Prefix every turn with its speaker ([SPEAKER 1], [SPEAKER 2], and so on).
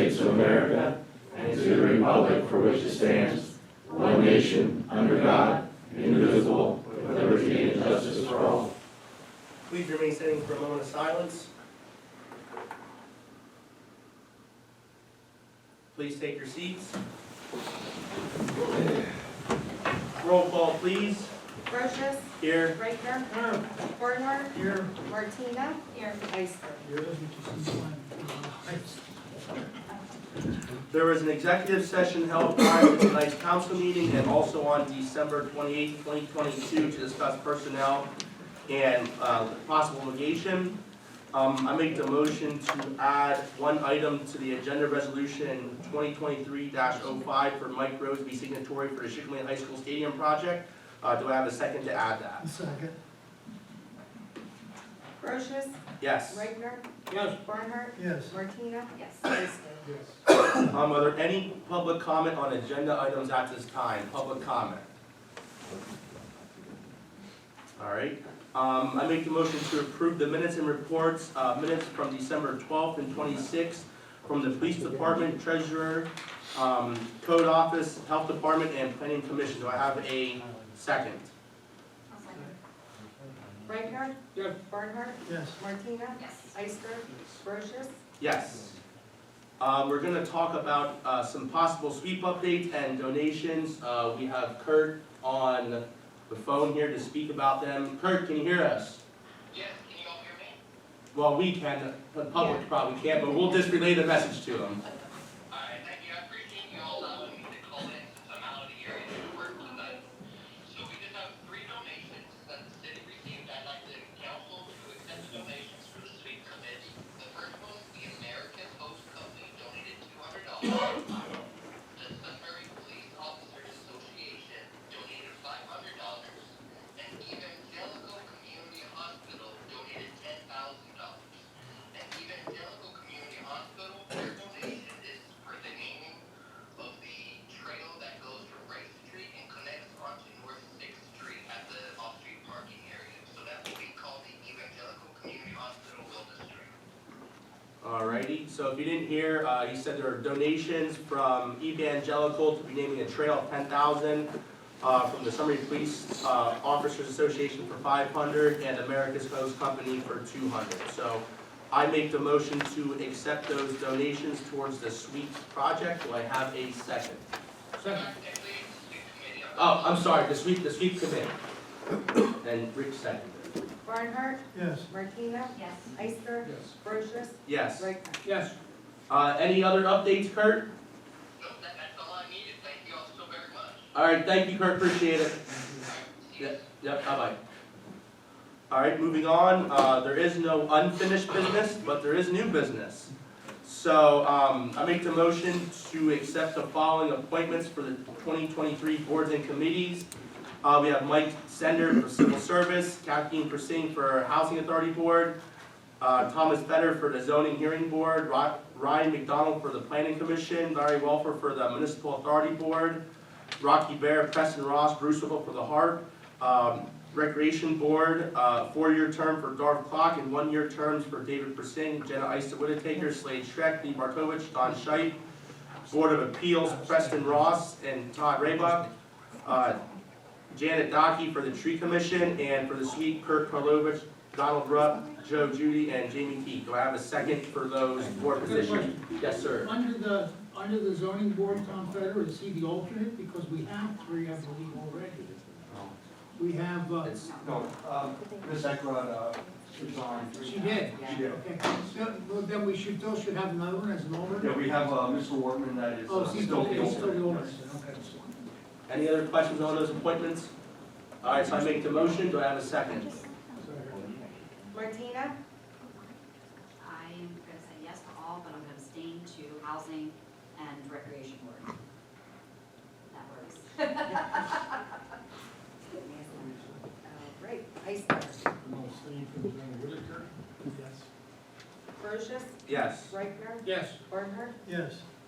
[SPEAKER 1] America and to the republic for which it stands, one nation, under God, indivisible, with liberty and justice for all.
[SPEAKER 2] Please remain standing for a moment of silence. Please take your seats. Roll call, please.
[SPEAKER 3] Brochus,
[SPEAKER 2] Here.
[SPEAKER 3] Reichner, Bornheart,
[SPEAKER 2] Here.
[SPEAKER 3] Martina, Ister.
[SPEAKER 2] There was an executive session held prior to tonight's council meeting and also on December twenty-eighth, twenty twenty-two to discuss personnel and, uh, possible litigation. Um, I make the motion to add one item to the agenda resolution twenty twenty-three 5 for Mike Rose to be signatory for the Schickman High School Stadium project. Uh, do I have a second to add that?
[SPEAKER 4] Second.
[SPEAKER 3] Brochus,
[SPEAKER 2] Yes.
[SPEAKER 3] Reichner,
[SPEAKER 2] Yes.
[SPEAKER 3] Bornheart,
[SPEAKER 4] Yes.
[SPEAKER 3] Martina, Ister.
[SPEAKER 4] Yes.
[SPEAKER 2] Um, are there any public comment on agenda items at this time, public comment? All right, um, I make the motion to approve the minutes and reports, uh, minutes from December twelfth and twenty-sixth from the police department, treasurer, um, code office, health department, and planning commission. Do I have a second?
[SPEAKER 3] Reichner,
[SPEAKER 2] Yes.
[SPEAKER 3] Bornheart,
[SPEAKER 4] Yes.
[SPEAKER 3] Martina, Ister. Brochus,
[SPEAKER 2] Yes. Um, we're gonna talk about, uh, some possible sweep updates and donations. Uh, we have Kurt on the phone here to speak about them. Kurt, can you hear us?
[SPEAKER 5] Yes, can you all hear me?
[SPEAKER 2] Well, we can, the public probably can't, but we'll just relay the message to them.
[SPEAKER 5] All right, thank you. I appreciate you all allowing me to call in since I'm out of the area to work tonight. So we just have three donations that the city received. I'd like the council to accept the donations for the sweep committee. The first one, the American Host Company donated two hundred dollars. The Sunbury Police Officers Association donated five hundred dollars. And Evangelical Community Hospital donated ten thousand dollars. and Evangelical Community Hospital, their donation is for the naming of the trail that goes from Rice Street and connects onto North Sixth Street at the off-street parking area. So that will be called the Evangelical Community Hospital Wellness Trail.
[SPEAKER 2] Alrighty, so if you didn't hear, uh, he said there are donations from Evangelical to be naming a trail of ten thousand, uh, from the Summary Police, uh, Officers Association for five hundred, and America's Host Company for two hundred. So I make the motion to accept those donations towards the sweeps project, do I have a second?
[SPEAKER 5] Technically, it's the sweep committee.
[SPEAKER 2] Oh, I'm sorry, the sweep, the sweep committee. And Rick seconded.
[SPEAKER 3] Bornheart,
[SPEAKER 4] Yes.
[SPEAKER 3] Martina, Ister. Brochus,
[SPEAKER 2] Yes.
[SPEAKER 3] Reichner.
[SPEAKER 2] Yes. Uh, any other updates, Kurt?
[SPEAKER 5] So that, that's all I needed. Thank you all so very much.
[SPEAKER 2] Alright, thank you, Kurt, appreciate it.
[SPEAKER 5] See you
[SPEAKER 2] Yep, yep, bye-bye. All right, moving on, uh, there is no unfinished business, but there is new business. So, um, I make the motion to accept the following appointments for the twenty twenty-three boards and committees. Uh, we have Mike Sender for civil service, Kathleen Persing for housing authority board, uh, Thomas Fetter for the zoning hearing board, Ry- Ryan McDonald for the planning commission, Larry Welfer for the municipal authority board, Rocky Bear, Preston Ross, Bruce Whipple for the harp, um, Recreation Board, uh, four-year term for Darv Clark and one-year terms for David Persing, Jenna Ister Whittaker, Slade Schreck, Lee Markovich, Don Scheit. Board of Appeals, Preston Ross and Todd Raybuck. Uh, Janet Dockey for the Tree Commission and for the Sweet Kurt Karlovic, Donald Rupp, Joe Judy, and Jamie Key. Do I have a second for those board positions? Yes, sir.
[SPEAKER 4] Under the, under the zoning board, Tom Federer, is he the alternate? Because we have three, I believe, already. We have, uh,
[SPEAKER 2] It's-
[SPEAKER 6] No, um, Ms. Eckland, uh, resigned.
[SPEAKER 4] she did.
[SPEAKER 6] She did.
[SPEAKER 4] Okay, so, well, then we should, still should have another one as an alternate?
[SPEAKER 6] Yeah, we have, uh, Mr. Wortman that is
[SPEAKER 4] Oh,
[SPEAKER 6] uh,
[SPEAKER 4] so he's
[SPEAKER 6] still
[SPEAKER 4] still,
[SPEAKER 6] the
[SPEAKER 4] he's still the
[SPEAKER 6] alternate.
[SPEAKER 4] alternate, okay.
[SPEAKER 2] Any other questions on those appointments? All right, so I make the motion. Do I have a second?
[SPEAKER 3] Martina,
[SPEAKER 7] I'm gonna say yes to all, but I'm gonna abstain to housing and recreation board. That works.
[SPEAKER 3] uh, right, Ister. Brochus,
[SPEAKER 2] Yes.
[SPEAKER 3] Reichner,
[SPEAKER 4] Yes.
[SPEAKER 3] Bornheart,
[SPEAKER 4] Yes.